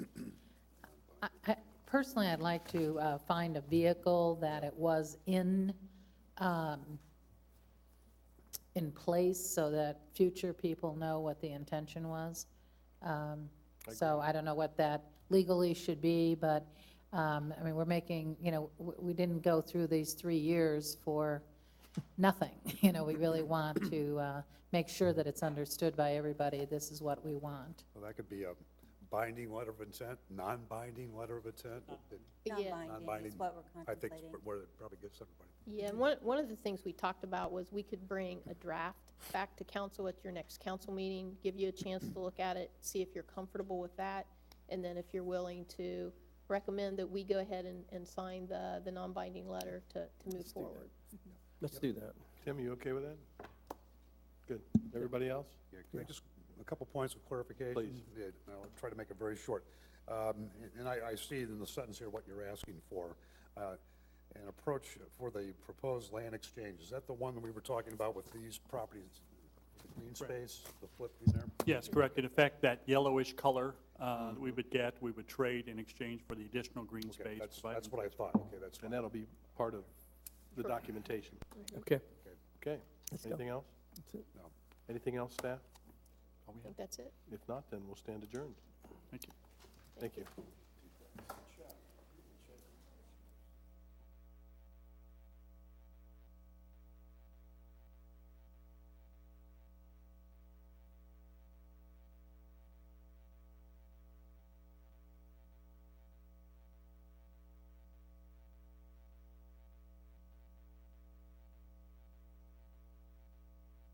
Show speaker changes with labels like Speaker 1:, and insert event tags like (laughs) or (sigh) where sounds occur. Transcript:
Speaker 1: Personally, I'd like to uh, find a vehicle that it was in, um, in place so that future people know what the intention was. Um, So I don't know what that legally should be, but, um, I mean, we're making, you know, w- we didn't go through these three years for nothing. (laughs) You know, we really want to uh, make sure that it's understood by everybody, this is what we want.
Speaker 2: Well, that could be a binding letter of intent, non-binding letter of intent.
Speaker 3: Yeah,
Speaker 2: Non-binding
Speaker 3: Non-binding is what we're
Speaker 2: I think
Speaker 3: contemplating.
Speaker 2: is where it probably gets everybody.
Speaker 4: yeah, and one, one of the things we talked about was we could bring a draft back to council at your next council meeting, give you a chance to look at it, see if you're comfortable with that, and then if you're willing to recommend that we go ahead and, and sign the, the non-binding letter to, to move forward.
Speaker 5: Let's do that.
Speaker 6: Tim, you okay with that? Good. Everybody else?
Speaker 2: Yeah, can I just, a couple points of clarification?
Speaker 6: Please.
Speaker 2: Yeah, and I'll try to make it very short. Um, And I, I see in the sentence here what you're asking for. Uh, An approach for the proposed land exchange, is that the one that we were talking about with these properties? the Green space, the flip in there?
Speaker 7: Yes, correct. In effect, that yellowish color uh, that we would get, we would trade in exchange for the additional green
Speaker 2: Okay,
Speaker 7: space.
Speaker 2: that's,
Speaker 7: provided-
Speaker 2: that's what I thought, okay, that's fine.
Speaker 6: And that'll be part of the documentation.
Speaker 5: Okay.
Speaker 6: Okay.
Speaker 5: Let's go.
Speaker 6: Anything else?
Speaker 5: That's it.
Speaker 2: No.
Speaker 6: Anything else, staff?
Speaker 4: I think that's it.
Speaker 6: If not, then we'll stand adjourned.
Speaker 7: Thank you.
Speaker 6: Thank you.